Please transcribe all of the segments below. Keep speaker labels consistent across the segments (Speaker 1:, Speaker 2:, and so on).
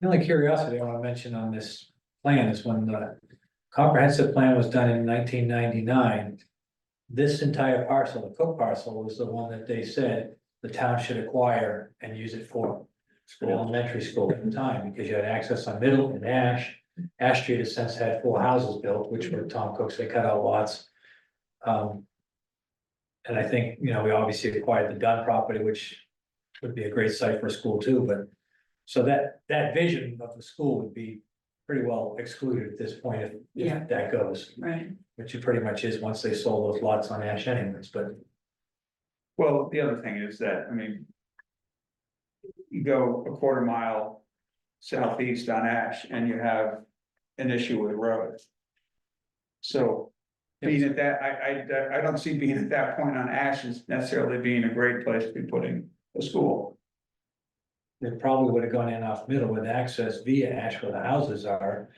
Speaker 1: The only curiosity I wanna mention on this plan is when the comprehensive plan was done in nineteen ninety-nine. This entire parcel, the Cook parcel, was the one that they said the town should acquire and use it for. An elementary school at the time, because you had access on Middle and Ash. Ash Street has since had four houses built, which were Tom Cook's, they cut out lots. Um. And I think, you know, we obviously acquired the Dunn property, which would be a great site for a school too, but. So that, that vision of the school would be pretty well excluded at this point if,
Speaker 2: Yeah.
Speaker 1: if that goes.
Speaker 2: Right,
Speaker 1: Which it pretty much is once they sold those lots on Ash anyways, but
Speaker 3: Well, the other thing is that, I mean. You go a quarter mile southeast on Ash and you have an issue with roads. So being at that, I, I, I don't see being at that point on Ash as necessarily being a great place to be putting a school.
Speaker 1: they probably would have gone in off middle with access via Ash where the houses are.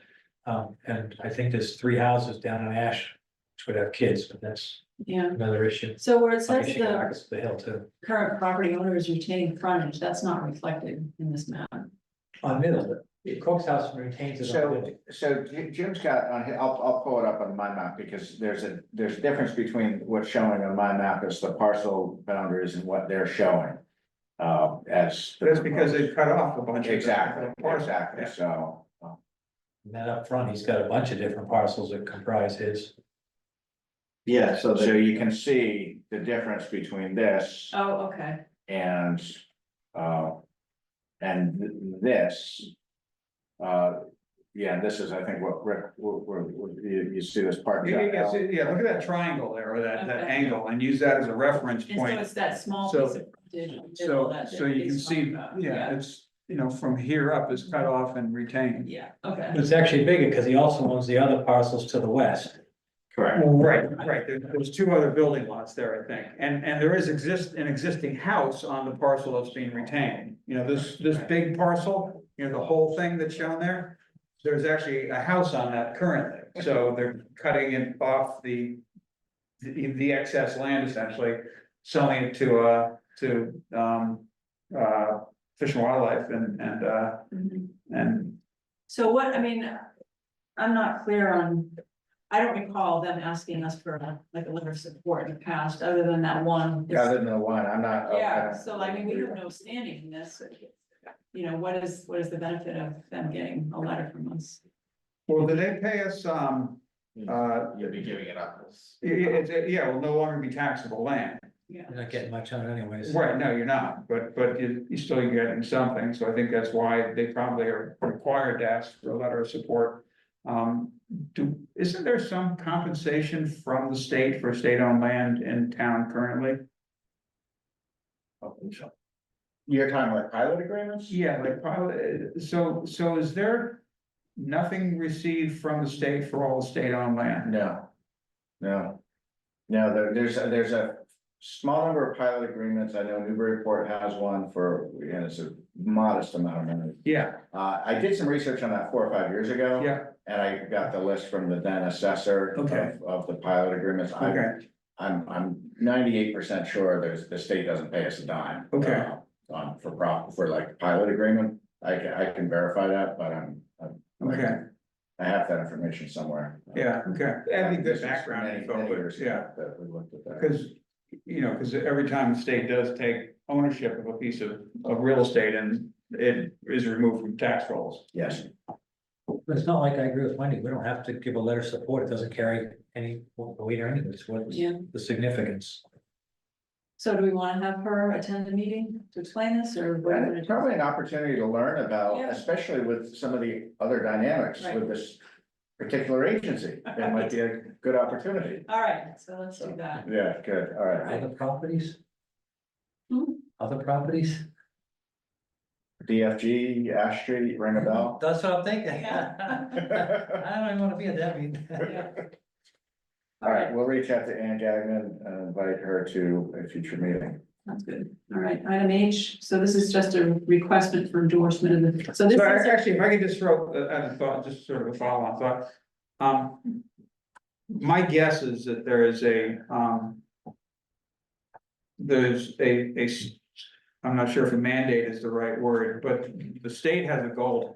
Speaker 1: Um, and I think there's three houses down on Ash, which would have kids, but that's
Speaker 2: yeah.
Speaker 1: another issue.
Speaker 2: So where it
Speaker 1: Like
Speaker 2: says
Speaker 1: in
Speaker 2: the
Speaker 1: Chicago's The hill too,
Speaker 2: current property owner is retaining frontage, that's not reflected in this map.
Speaker 1: on middle, but the Cook's house retains it on
Speaker 4: So,
Speaker 1: middle.
Speaker 4: so Ji- Jim's got on, hi- I'll, I'll pull it up on my map because there's a, there's a difference between what's showing on my map as the parcel boundaries and what they're showing. Uh, as. the
Speaker 3: That's because they
Speaker 4: proposed.
Speaker 3: cut off a bunch of.
Speaker 4: Exactly, exactly,
Speaker 3: Yeah.
Speaker 4: so. uh,
Speaker 1: And then up front, he's got a bunch of different parcels that comprise his.
Speaker 4: Yeah, so. So you can see the difference between this
Speaker 2: Oh, okay,
Speaker 4: and, uh, and th- this. Uh, yeah, this is, I think, what Rick, where, where, where you, you see this part.
Speaker 3: Yeah, yeah, yeah, see, yeah, look at that triangle there, or that, that
Speaker 2: Okay.
Speaker 3: angle, and use that as a reference
Speaker 2: and so
Speaker 3: point.
Speaker 2: it's that small
Speaker 3: So-
Speaker 2: piece of frontage. in the middle
Speaker 3: So,
Speaker 2: that
Speaker 3: so you can
Speaker 2: he's
Speaker 3: see,
Speaker 2: talking about.
Speaker 3: yeah, it's, you know, from here up is cut off and retained.
Speaker 2: Yeah, okay,
Speaker 1: But It's actually bigger because he also owns the other parcels to the west.
Speaker 4: Correct.
Speaker 3: Well, right, right, there, there's two other building lots there, I think, and, and there is exist, an existing house on the parcel that's being retained. You know, this, this big parcel, you know, the whole thing that's shown there, there's actually a house on that currently, so they're cutting it off the. The, the excess land essentially, selling it to, uh, to, um, uh, Fish and Wildlife and, and, uh,
Speaker 2: Mhm.
Speaker 3: and.
Speaker 2: so what, I mean, I'm not clear on, I don't recall them asking us for uh, like a letter of support in the past, other than that one.
Speaker 4: Other than the one, I'm not. I
Speaker 2: Yeah,
Speaker 4: don't-
Speaker 2: so I mean, we have no standing in this. You know, what is, what is the benefit of them getting a letter from us?
Speaker 3: Well, did they pay us, um, uh,
Speaker 4: You'll be giving it up.
Speaker 3: Yeah, yeah, it's, uh, yeah, will no longer be taxable land.
Speaker 2: Yeah.
Speaker 1: You're not getting much on it anyways.
Speaker 3: Right, no, you're not, but, but you, you still getting something, so I think that's why they probably are required to ask for a letter of support. Um, do, isn't there some compensation from the state for state-owned land in town currently?
Speaker 4: You're talking like pilot agreements?
Speaker 3: Yeah, like probably, so, so is there nothing received from the state for all the state-owned land?
Speaker 4: No. No. No, there, there's, a- there's a small number of pilot agreements. I know Newburyport has one for, and it's a modest amount of money.
Speaker 3: Yeah,
Speaker 4: Uh, I did some research on that four or five years ago.
Speaker 3: yeah,
Speaker 4: And I got the list from the then assessor of,
Speaker 3: Okay.
Speaker 4: of the pilot agreements. I'm,
Speaker 3: okay,
Speaker 4: I'm, I'm ninety-eight percent sure there's, the state doesn't pay us a dime.
Speaker 3: Okay.
Speaker 4: uh, On, for prop, for like pilot agreement. I can, I can verify that, but I'm, I'm-
Speaker 3: okay,
Speaker 4: I have that information somewhere.
Speaker 3: yeah, okay. That'd be
Speaker 4: This
Speaker 3: good
Speaker 4: is
Speaker 3: background
Speaker 4: many,
Speaker 3: info,
Speaker 4: many
Speaker 3: but-
Speaker 4: years
Speaker 3: yeah.
Speaker 4: ago That we looked at that.
Speaker 3: Cause, you know, cause every time the state does take ownership of a piece of, of real estate and it is removed from tax rolls.
Speaker 4: Yes,
Speaker 1: But it's not like I agree with Wendy, we don't have to give a letter of support, it doesn't carry any weight or anything, it's what's
Speaker 2: Yeah,
Speaker 1: the significance.
Speaker 2: so do we wanna have her attend the meeting to explain this or? what?
Speaker 4: and it's probably an opportunity to learn about,
Speaker 2: Yeah.
Speaker 4: especially with some of the other dynamics
Speaker 2: Right.
Speaker 4: with this particular agency. It might be a good opportunity.
Speaker 2: All right, so let's do that.
Speaker 4: Yeah, good, all right.
Speaker 1: Other properties?
Speaker 2: Hmm?
Speaker 1: Other properties?
Speaker 4: DFG, Ash Street, ring a bell?
Speaker 1: That's what I'm thinking. I don't
Speaker 4: All
Speaker 1: even wanna be at that meeting.
Speaker 2: Yeah.
Speaker 4: right, we'll reach out to Ann Gagnon and invite her to a future meeting.
Speaker 2: Sounds good. All right, item H, so this is just a request for endorsement of the, so this
Speaker 3: So
Speaker 2: is.
Speaker 3: actually, if I could just throw, uh, uh, thought, just sort of a follow-on thought. Um, my guess is that there is a, um, there's a, a, s- I'm not sure if a mandate is the right word, but the state has a goal to